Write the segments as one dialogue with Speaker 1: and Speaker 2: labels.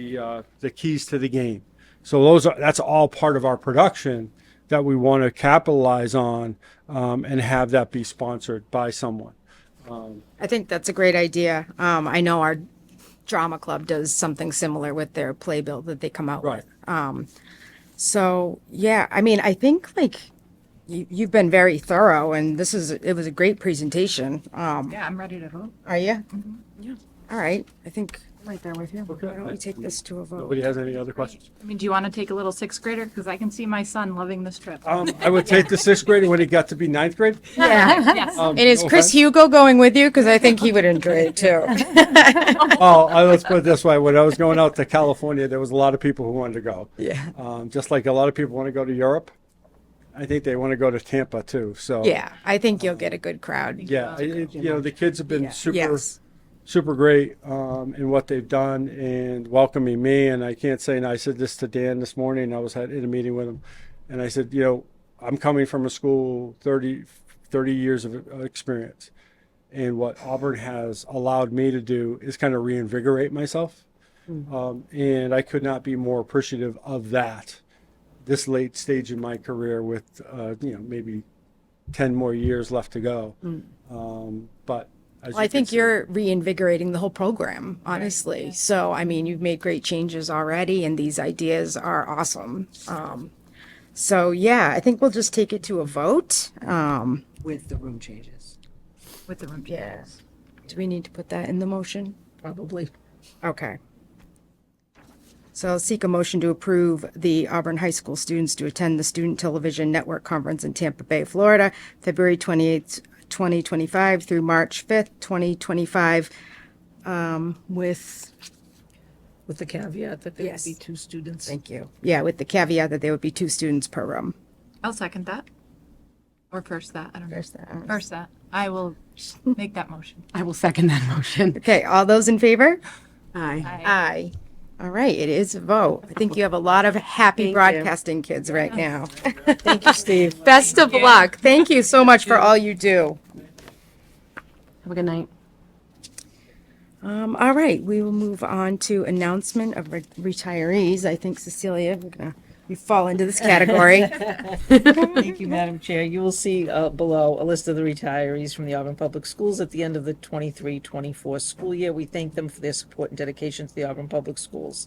Speaker 1: the uh, the keys to the game. So those are that's all part of our production that we want to capitalize on um, and have that be sponsored by someone.
Speaker 2: I think that's a great idea. Um, I know our drama club does something similar with their playbill that they come out
Speaker 1: Right.
Speaker 2: with. So yeah, I mean, I think like you, you've been very thorough, and this is it was a great presentation. Um,
Speaker 3: Yeah, I'm ready to vote.
Speaker 2: are you? Mm-hmm. Yeah. All right. I think I'm right there with you.
Speaker 1: Okay.
Speaker 2: Why don't we take this to a vote?
Speaker 1: Nobody has any other questions?
Speaker 3: I mean, do you want to take a little sixth grader? Because I can see my son loving this trip.
Speaker 1: Um, I would take the sixth grade when it got to be ninth grade.
Speaker 2: Yeah.
Speaker 3: Yes.
Speaker 1: Um,
Speaker 2: And is
Speaker 1: no
Speaker 2: Chris
Speaker 1: offense.
Speaker 2: Hugo going with you? Because I think he would enjoy it too.
Speaker 1: Well, I- let's put it this way. When I was going out to California, there was a lot of people who wanted to go.
Speaker 2: Yeah.
Speaker 1: Um, just like a lot of people want to go to Europe. I think they want to go to Tampa too. So
Speaker 2: Yeah, I think you'll get a good crowd.
Speaker 1: yeah, I- it- you know the kids have been
Speaker 3: Yeah.
Speaker 1: super,
Speaker 2: Yes.
Speaker 1: super great um, in what they've done and welcoming me. And I can't say, and I said this to Dan this morning. I was at, in a meeting with him, and I said, you know, I'm coming from a school 30, 30 years of uh, experience, and what Auburn has allowed me to do is kind of reinvigorate myself.
Speaker 2: Mm-hmm.
Speaker 1: Um, and I could not be more appreciative of that. This late stage in my career, with uh, you know maybe ten more years left to go, um, but as
Speaker 2: Mm. Well, I
Speaker 1: you can
Speaker 2: think
Speaker 1: see-
Speaker 2: you're reinvigorating the whole program, honestly. So, I mean, you've made great changes already, and these ideas are awesome. Um, so, yeah, I think we'll just take it to a vote. Um,
Speaker 4: with the room changes.
Speaker 3: With the room.
Speaker 2: yeah. Do we need to put that in the motion?
Speaker 4: Probably.
Speaker 2: Okay. So I'll seek a motion to approve the Auburn High School students to attend the Student Television Network Conference in Tampa Bay, Florida, February 28th, 2025 through March 5th, 2025, um, with,
Speaker 4: With the caveat that there
Speaker 2: Yes.
Speaker 4: would be two students.
Speaker 2: thank you, yeah, with the caveat that there would be two students per room.
Speaker 3: I'll second that. Or first that, I don't know.
Speaker 2: Okay,
Speaker 3: First that. I will make that motion.
Speaker 5: I will second that motion.
Speaker 2: all those in favor?
Speaker 5: Aye.
Speaker 2: Aye. All right, it is a vote. I think you have a lot of happy broadcasting kids right now.
Speaker 4: Thank you, Steve.
Speaker 2: Best of luck. Thank you so much for all you do.
Speaker 5: Have a good night.
Speaker 2: Um, all right, we will move on to announcement of re- retirees. I think Cecilia, we're gonna, you fall into this category.
Speaker 6: Thank you, Madam Chair. You will see uh, below a list of the retirees from the Auburn Public Schools at the end of the 23-24 school year. We thank them for their support and dedication to the Auburn Public Schools.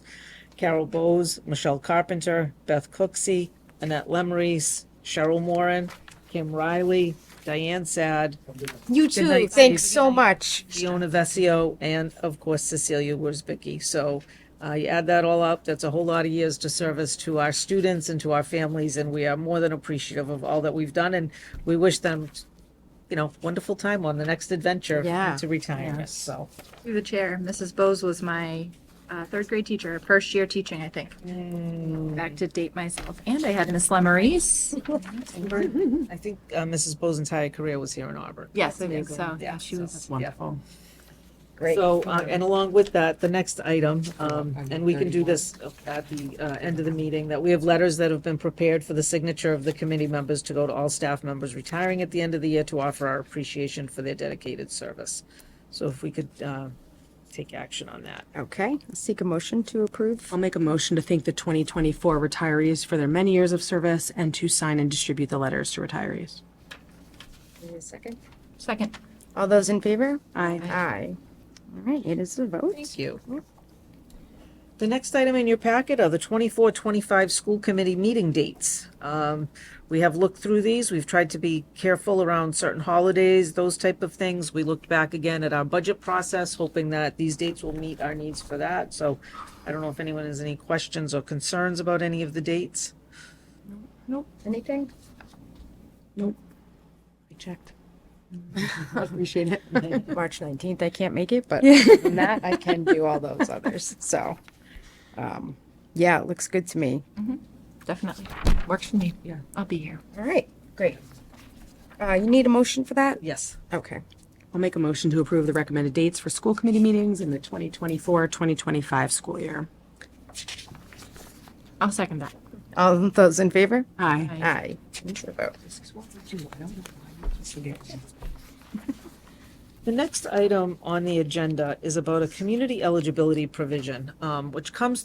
Speaker 6: Carol Bowes, Michelle Carpenter, Beth Cooksey, Annette Lemrys, Cheryl Moran, Kim Riley, Diane Sad,
Speaker 2: You
Speaker 6: Good
Speaker 2: too.
Speaker 6: night,
Speaker 2: Thanks
Speaker 6: Steve.
Speaker 2: so much.
Speaker 6: Fiona Vesio, and of course Cecilia Worsbicky. So uh, you add that all up, that's a whole lot of years to service to our students and to our families, and we are more than appreciative of all that we've done, and we wish them, you know, wonderful time on the next adventure
Speaker 2: Yeah.
Speaker 6: to retirement. So
Speaker 3: Through the chair, Mrs. Bowes was my uh, third grade teacher, first year teaching, I think. Back to date myself. And I had Miss Lemarys.
Speaker 6: I think uh, Mrs. Bowe's entire career was here in Auburn.
Speaker 3: Yes, I think so. Yeah,
Speaker 6: Yeah,
Speaker 3: she
Speaker 6: so-
Speaker 3: was.
Speaker 5: Wonderful.
Speaker 2: Great.
Speaker 6: So, uh, and along with that, the next item, um, and we can do this at the uh, end of the meeting, that we have letters that have been prepared for the signature of the committee members to go to all staff members retiring at the end of the year to offer our appreciation for their dedicated service. So if we could uh, take action on that.
Speaker 2: Okay, I'll seek a motion to approve.
Speaker 5: I'll make a motion to thank the 2024 retirees for their many years of service and to sign and distribute the letters to retirees.
Speaker 2: Second.
Speaker 3: Second.
Speaker 2: All those in favor?
Speaker 5: Aye.
Speaker 2: Aye. All right, it is a vote.
Speaker 6: Thank you. The next item in your packet are the 24-25 school committee meeting dates. Um, we have looked through these. We've tried to be careful around certain holidays, those type of things. We looked back again at our budget process, hoping that these dates will meet our needs for that. So I don't know if anyone has any questions or concerns about any of the dates.
Speaker 2: Anything?
Speaker 5: I checked. I Appreciate it.
Speaker 2: March 19th, I can't make it, but other than that, I can do all those others. So, um, yeah, it looks good to me.
Speaker 3: Definitely. Works for me. Yeah. I'll be here.
Speaker 2: All right, great. Uh, you need a motion for that?
Speaker 6: Yes.
Speaker 2: Okay.
Speaker 5: I'll make a motion to approve the recommended dates for school committee meetings in the 2024-2025 school year.
Speaker 3: I'll second that.
Speaker 2: All those in favor?
Speaker 5: Aye.
Speaker 2: Aye. Intro vote.
Speaker 6: The next item on the agenda is about a community eligibility provision, um, which comes